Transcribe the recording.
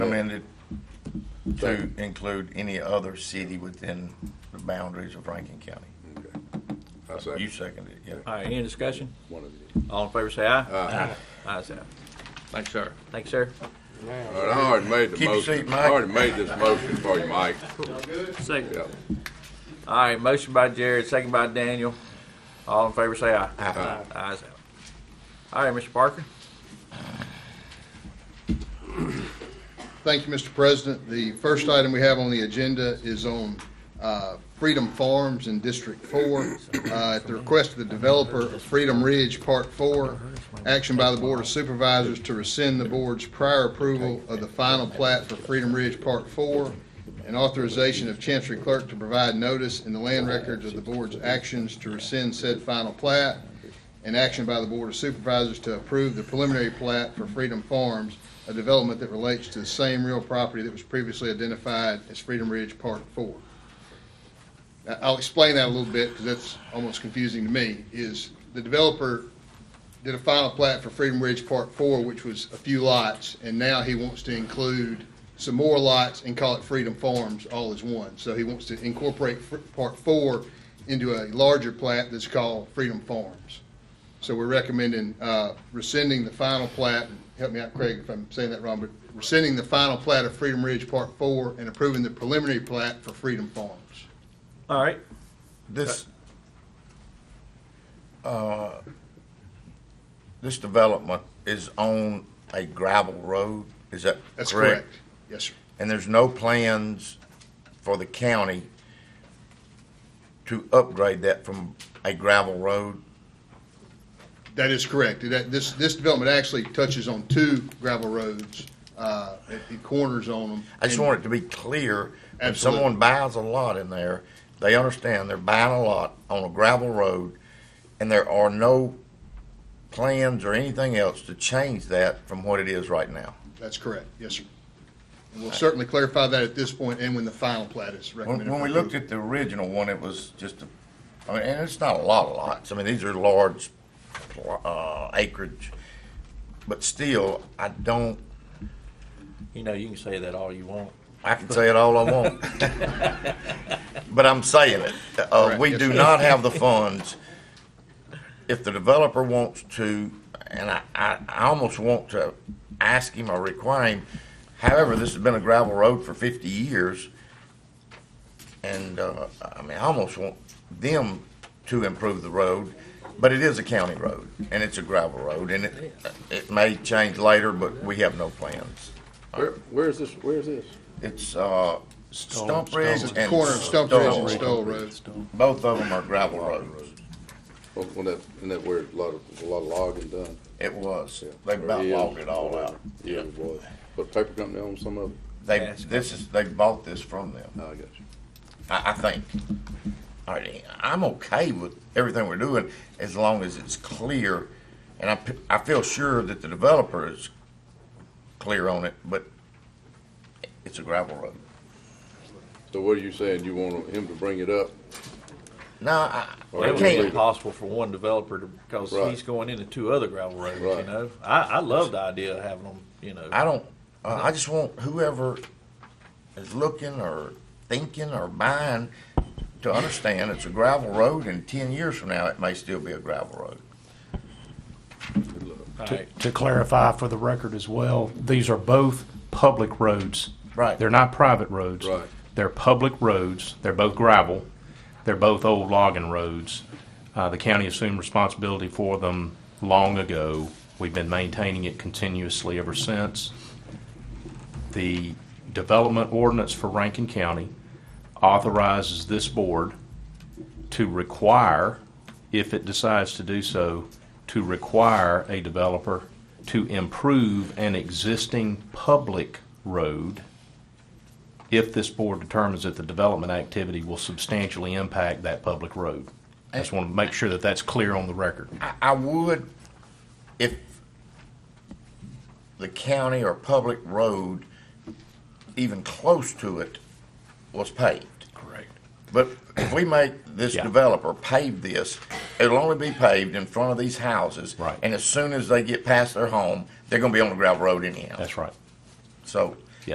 amended to include any other city within the boundaries of Rankin County. Okay. I second. You seconded it, yeah. All right, any discussion? One of you. All in favor, say aye. Aye. Ayes have. it. Thanks, sir. Thank you, sir. All right, I already made the Keep your seat, motion. Mike. I already made this motion for you, Mike. Second. Yep. All right, motion by Jared, second by Daniel. All in favor, say aye. Aye. Ayes have. it. All right, Mr. Parker. Thank you, Mr. President. The first item we have on the agenda is on uh, Freedom Farms in District 4. Uh, At the request of the developer of Freedom Ridge Part 4, action by the Board of Supervisors to rescind the board's prior approval of the final plat for Freedom Ridge Part 4 and authorization of Chancery Clerk to provide notice in the land records of the board's actions to rescind said final plat and action by the Board of Supervisors to approve the preliminary plat for Freedom Farms, a development that relates to the same real property that was previously identified as Freedom Ridge Part Four. I- I'll explain that a little bit, because that's almost confusing to me, is the developer did a final plat for Freedom Ridge Part Four, which was a few lots, and now he wants to include some more lots and call it Freedom Farms all as one. So he wants to incorporate Fr- Part Four into a larger plat that's called Freedom Farms. So we're recommending uh, rescinding the final plat, and help me out Craig if I'm saying that wrong, but rescinding the final plat of Freedom Ridge Part Four and approving the preliminary plat for Freedom Farms. All right. This, uh, this development is on a gravel road, is that correct? That's correct. Yes, sir. And there's no plans for the county to upgrade that from a gravel road? That is correct. That, this, this development actually touches on two gravel roads, uh, it it corners on them. I just want it to be clear, when Absolutely. someone buys a lot in there, they understand they're buying a lot on a gravel road, and there are no plans or anything else to change that from what it is right now. That's correct. Yes, sir. And we'll certainly clarify that at this point and when the final plat is When, recommended. when for we looked approval. at the original one, it was just, a- I mean, and it's not a lot of lots, I mean, these are large, uh, acreage, but still, I don't, You know, you can say that all you want. I can say it all I want. But I'm saying it. Uh, we do not have the funds. If the developer wants to, and I, I, I almost want to ask him or require him, however, this has been a gravel road for fifty years. And, uh, I mean, I almost want them to improve the road, but it is a county road and it's a gravel road and it, it may change later, but we have no plans. Where, where's this, where's this? It's uh, Stump Ridge It's and. the corner of Stump Ridge Stone. and Stoll Road. Both of them are gravel roads. On on that, in that where a lot of, a lot of logging done. It was. They about logged it all out. Yeah, boy. Put a paper company on some of it. They, Yes. this is, they bought this from them, Oh, I got you. I, I think. All right, I'm okay with everything we're doing as long as it's clear. And I, p- I feel sure that the developer is clear on it, but it's a gravel road. So what are you saying? You want him to bring it up? No, I, Well, I It was can't be legal. can't. possible for one developer to, because Right. he's going into two other gravel roads, you Right. know? I, I love the idea of having them, you know. I don't, uh, I just want whoever is looking or thinking or buying to understand it's a gravel road and ten years from now, it may still be a gravel road. Good luck. All To- right, To clarify for the record as well, these are both public roads. Right. They're not private roads. Right. They're public roads. They're both gravel. They're both old logging roads. Uh, the county assumed responsibility for them long ago. We've been maintaining it continuously ever since. The development ordinance for Rankin County authorizes this board to require, if it decides to do so, to require a developer to improve an existing public road if this board determines that the development activity will substantially impact that public road. I just want to make sure that that's clear on the record. I, I would, if the county or public road, even close to it, was paved. Correct. But if we make this Yeah. developer pave this, it'll only be paved in front of these houses. Right. And as soon as they get past their home, they're gonna be on the gravel road anyhow. That's right. So